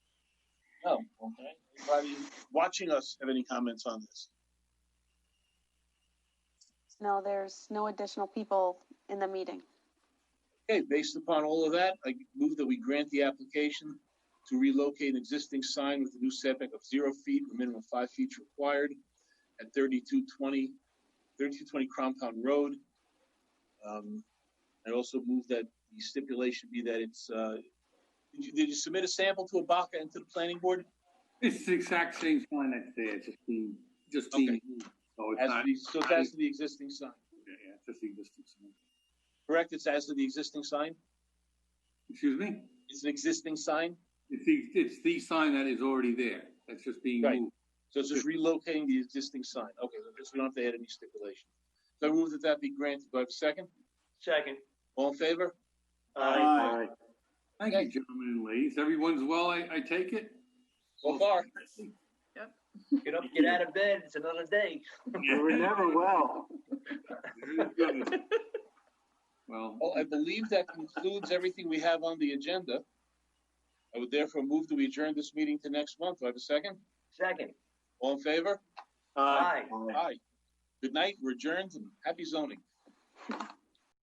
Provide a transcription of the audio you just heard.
Okay. Anybody watching us have any comments on this? No, there's no additional people in the meeting. Okay, based upon all of that, I move that we grant the application to relocate an existing sign with a new setback of zero feet, the minimum five feet required at 3220 3220 Crown Pound Road. Um, I also move that the stipulation be that it's, uh, did you, did you submit a sample to Abaca and to the planning board? It's the exact same sign that's there, it's just being, just being, Okay. so it's As not, the, so it's as to the existing sign, yeah, yeah, it's just the existing sign. correct? It's as to the existing sign? Excuse me? It's an existing sign? It's the, it's the sign that is already there, that's just being Right. moved. So it's just relocating the existing sign. Okay, so just we don't have to add any stipulation. So I move that that be granted. Do I have a second? Second. All in favor? Aye. Thank you, gentlemen and ladies, everyone's well, I, I take it? So far. Get up, get out of bed, it's another day. We're never well. Well, Well, I believe that concludes everything we have on the agenda. I would therefore move that we adjourn this meeting to next month. Do I have a second? Second. All in favor? Aye. Aye. Good night. We're adjourned and happy zoning.